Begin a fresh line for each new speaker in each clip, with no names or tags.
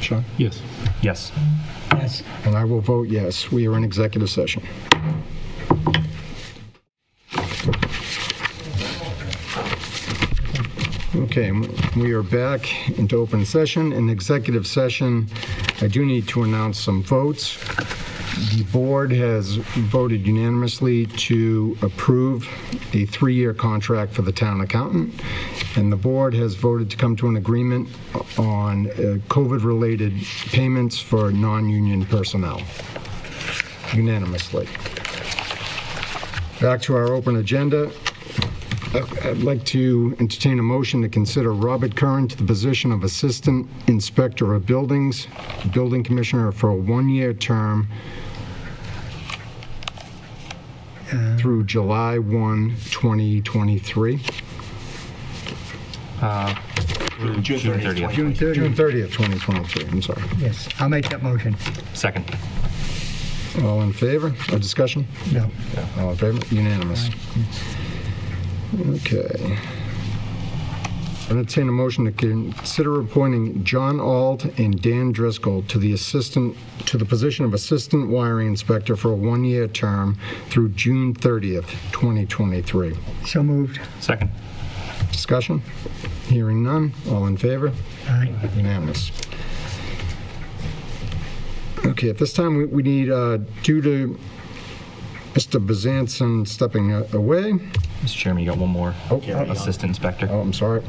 Sean?
Yes.
Yes.
Yes.
And I will vote yes. We are in executive session. Okay, we are back into open session. In executive session, I do need to announce some votes. The board has voted unanimously to approve a three-year contract for the town accountant, and the board has voted to come to an agreement on uh, COVID-related payments for non-union personnel unanimously. Back to our open agenda. Uh, I'd like to entertain a motion to consider Robert Curran to the position of Assistant Inspector of Buildings, Building Commissioner for a one-year term through July 1, 2023.
June 30th.
June 30th.
June 30th, 2023, I'm sorry.
Yes, I'll make that motion.
Second.
All in favor? A discussion?
No.
All in favor? Unanimous. Okay. Entertain a motion to consider appointing John Alt and Dan Driscoll to the assistant, to the position of Assistant Wiring Inspector for a one-year term through June 30th, 2023.
So moved.
Second.
Discussion? Hearing none. All in favor?
Aye.
Unanimous. Okay, at this time, we- we need, uh, due to Mr. Bezanson stepping a- away,
Mr. Chairman, you got one more. Assistant Inspector.
oh, I'm sorry,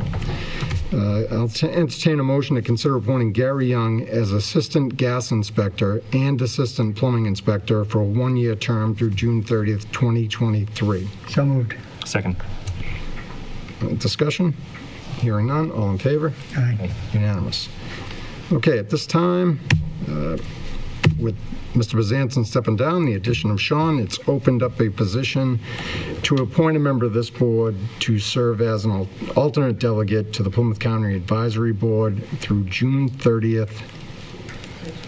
Uh, I'll t- entertain a motion to consider appointing Gary Young as Assistant Gas Inspector and Assistant Plumbing Inspector for a one-year term through June 30th, 2023.
So moved.
Second.
Discussion? Hearing none, all in favor?
Aye.
Unanimous. Okay, at this time, uh, with Mr. Bezanson stepping down, the addition of Sean, it's opened up a position to appoint a member of this board to serve as an al- alternate delegate to the Plymouth County Advisory Board through June 30th,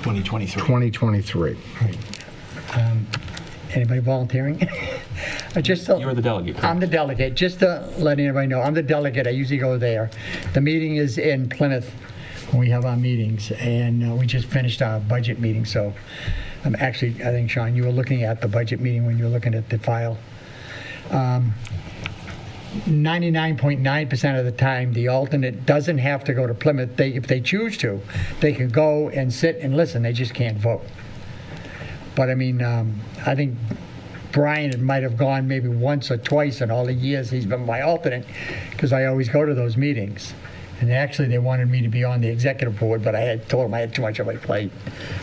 2023.
2023.
Anybody volunteering? I Just to-
You are the delegate. correct?
I'm the delegate, just to let anybody know, I'm the delegate, I usually go there. The meeting is in Plymouth, when we have our meetings, and uh, we just finished our budget meeting, so I'm actually, I think, Sean, you were looking at the budget meeting when you were looking at the file. Um, 99.9% of the time, the alternate doesn't have to go to Plymouth. They, if they choose to, they can go and sit and listen, they just can't vote. But I mean, um, I think Brian might have gone maybe once or twice in all the years he's been my alternate, because I always go to those meetings. And actually, they wanted me to be on the executive board, but I had told them I had too much on my plate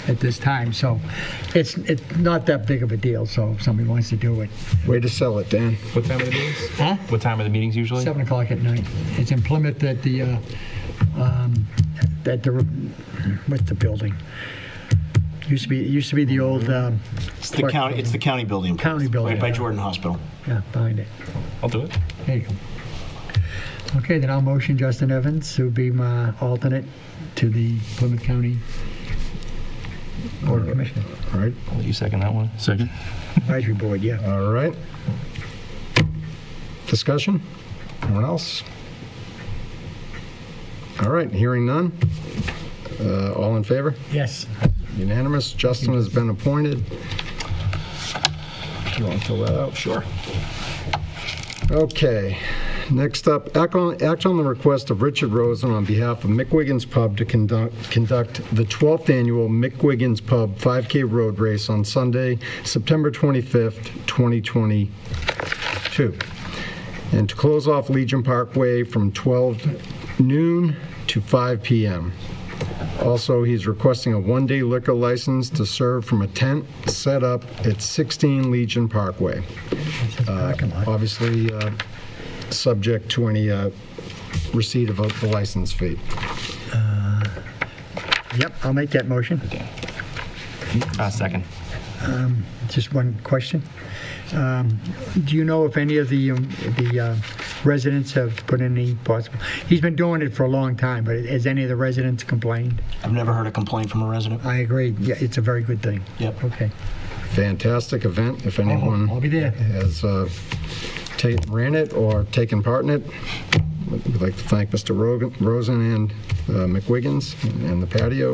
at this time. So it's, it's not that big of a deal, so if somebody wants to do it.
Way to sell it, Dan.
What time are the meetings?
Huh?
What time are the meetings usually?
Seven o'clock at night. It's in Plymouth at the, uh, um, at the, what's the building? Used to be, it used to be the old um,
It's the county, it's the county building.
county building.
Right by Jordan Hospital.
Yeah, behind it.
I'll do it.
There you go. Okay, then I'll motion Justin Evans, who'd be my alternate to the Plymouth County Board of Commissioners,
All right,
I'll let you second that one. Second.
Advisory Board, yeah.
all right. Discussion? Anyone else? All right, hearing none. Uh, All in favor?
Yes.
Unanimous. Justin has been appointed. Do you want to fill that out? Sure. Okay. Next up, act on, act on the request of Richard Rosen on behalf of Mick Wiggins Pub to conduct, conduct the 12th annual Mick Wiggins Pub 5K Road Race on Sunday, September 25th, 2022. And to close off Legion Parkway from 12 noon to 5 p.m. Also, he's requesting a one-day liquor license to serve from a tent set up at 16 Legion Parkway.
Parking lot.
Obviously, uh, subject to any uh, receipt of a- the license fee.
Yep, I'll make that motion.
Uh, second.
Just one question. Um, Do you know if any of the, um, the uh, residents have put in any possible, he's been doing it for a long time, but has any of the residents complained?
I've never heard a complaint from a resident.
I agree, yeah, it's a very good thing.
Yep.
Okay.
Fantastic event, if anyone
I'll be there.
has uh, ta- ran it or taken part in it. We'd like to thank Mr. Rogan- Rosen and uh, McWiggins and the patio